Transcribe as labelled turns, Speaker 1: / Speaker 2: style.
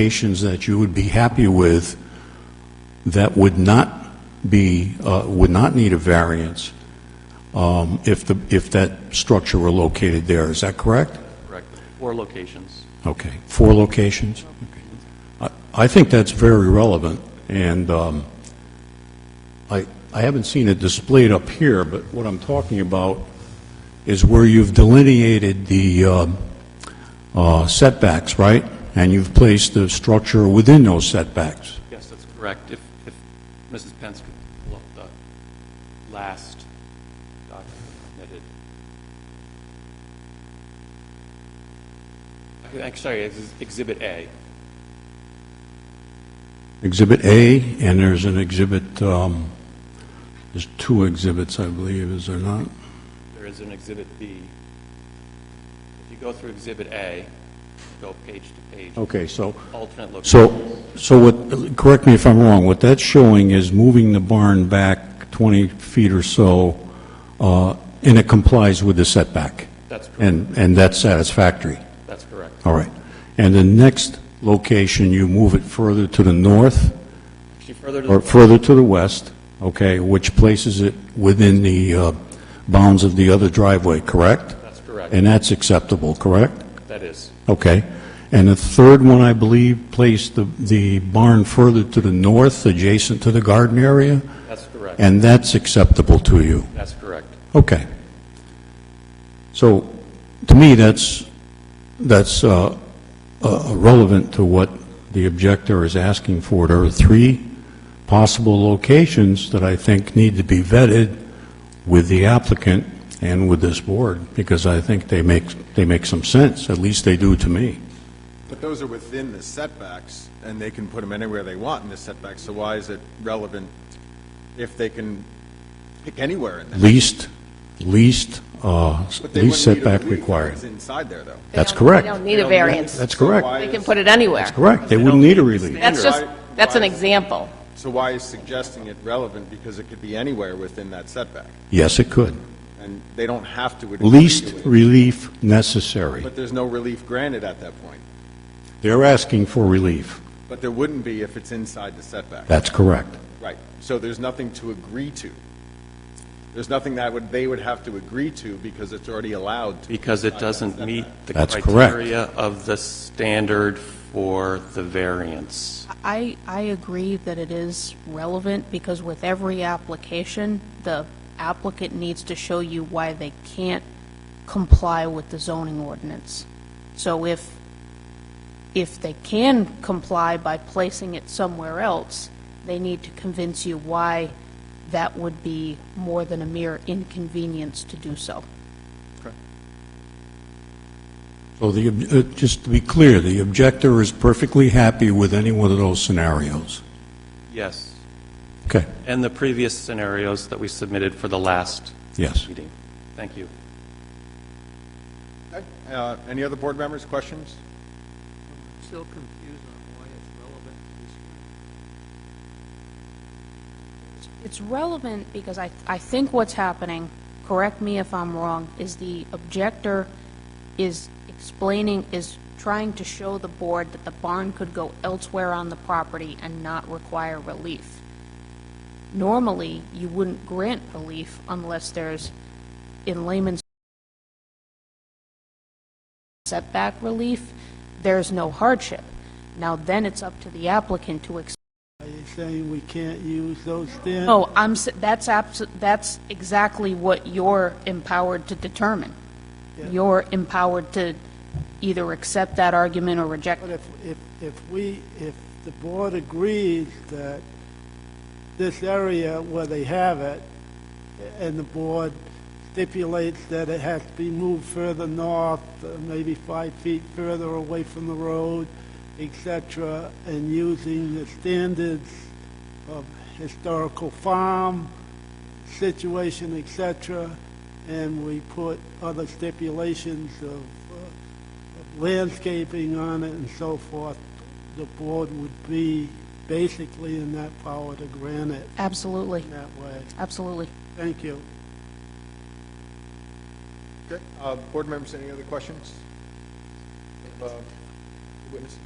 Speaker 1: modifications that you would be happy with that would not be, uh, would not need a variance um, if the, if that structure were located there, is that correct?
Speaker 2: Correct. Four locations.
Speaker 1: Okay, four locations? Okay. I I think that's very relevant, and um, I I haven't seen it displayed up here, but what I'm talking about is where you've delineated the um, uh, setbacks, right? And you've placed the structure within those setbacks.
Speaker 2: Yes, that's correct. If, if Mrs. Pence could pull up the last document submitted. Okay, I'm Sorry, this is Exhibit A.
Speaker 1: Exhibit A, and there's an exhibit, um, there's two exhibits, I believe, is there not?
Speaker 2: There is an Exhibit B. If you go through Exhibit A, go page to page,
Speaker 1: Okay, so
Speaker 2: alternate location.
Speaker 1: Oh. So, so what, correct me if I'm wrong, what that's showing is moving the barn back 20 feet or so, uh, and it complies with the setback,
Speaker 2: That's correct.
Speaker 1: and, and that's satisfactory,
Speaker 2: That's correct.
Speaker 1: all right. And the next location, you move it further to the north,
Speaker 2: Actually, further to the
Speaker 1: or further to the west, okay, which places it within the uh, bounds of the other driveway, correct?
Speaker 2: That's correct.
Speaker 1: And that's acceptable, correct?
Speaker 2: That is,
Speaker 1: Okay. And the third one, I believe, placed the the barn further to the north, adjacent to the garden area,
Speaker 2: that's correct.
Speaker 1: and that's acceptable to you?
Speaker 2: That's correct.
Speaker 1: Okay. So, to me, that's, that's uh, uh, relevant to what the objector is asking for. There are three possible locations that I think need to be vetted with the applicant and with this board, because I think they make, they make some sense, at least they do to me.
Speaker 3: But those are within the setbacks, and they can put them anywhere they want in the setbacks, so why is it relevant if they can pick anywhere in that?
Speaker 1: least, least, uh,
Speaker 3: But they
Speaker 1: least
Speaker 3: wouldn't need a
Speaker 1: setback
Speaker 3: relief if
Speaker 1: required.
Speaker 3: It's inside there, though.
Speaker 1: That's
Speaker 4: They don't-
Speaker 1: correct.
Speaker 4: They don't need a variance.
Speaker 1: That's
Speaker 3: So
Speaker 1: correct.
Speaker 3: why
Speaker 4: They
Speaker 3: is-
Speaker 4: can put it anywhere.
Speaker 1: Correct, they wouldn't need a relief.
Speaker 4: That's just,
Speaker 3: Why-
Speaker 4: that's an
Speaker 3: why is-
Speaker 4: example.
Speaker 3: So why is suggesting it relevant? Because it could be anywhere within that setback,
Speaker 1: Yes, it could.
Speaker 3: and they don't have to. agree
Speaker 1: Least
Speaker 3: to it.
Speaker 1: relief necessary.
Speaker 3: But there's no relief granted at that point.
Speaker 1: They're asking for relief.
Speaker 3: But there wouldn't be if it's inside the setback.
Speaker 1: That's correct.
Speaker 3: Right. So there's nothing to agree to. There's nothing that would, they would have to agree to because it's already allowed to.
Speaker 2: Because it doesn't meet the
Speaker 1: That's correct.
Speaker 2: criteria of the standard for the variance.
Speaker 5: I, I agree that it is relevant, because with every application, the applicant needs to show you why they can't comply with the zoning ordinance. So if, if they can comply by placing it somewhere else, they need to convince you why that would be more than a mere inconvenience to do so.
Speaker 1: So the, ob- uh, just to be clear, the objector is perfectly happy with any one of those scenarios.
Speaker 2: Yes,
Speaker 1: Okay,
Speaker 2: and the previous scenarios that we submitted for the last
Speaker 1: yes.
Speaker 2: meeting. Thank you.
Speaker 3: Okay. Uh, Any other board members, questions?
Speaker 6: Still confused on why it's relevant to this hearing.
Speaker 5: It's relevant because I, I think what's happening, correct me if I'm wrong, is the objector is explaining, is trying to show the board that the barn could go elsewhere on the property and not require relief. Normally, you wouldn't grant relief unless there's, in layman's setback relief, there's no hardship. Now, then it's up to the applicant to explain
Speaker 6: Are you saying we can't use those standards?
Speaker 5: no, I'm, s- that's abs, that's exactly what you're empowered to determine. You're empowered to either accept that argument or reject
Speaker 6: But
Speaker 5: it.
Speaker 6: if, if, if we, if the board agrees that this area where they have it, and the board stipulates that it has to be moved further north, uh, maybe five feet further away from the road, et cetera, and using the standards of historical farm situation, et cetera, and we put other stipulations of uh, landscaping on it and so forth, the board would be basically in that power to grant it
Speaker 5: Absolutely,
Speaker 6: in that way.
Speaker 5: absolutely.
Speaker 6: Thank you.
Speaker 3: Okay. Uh, Board members, any other questions? Uh, Witnesses?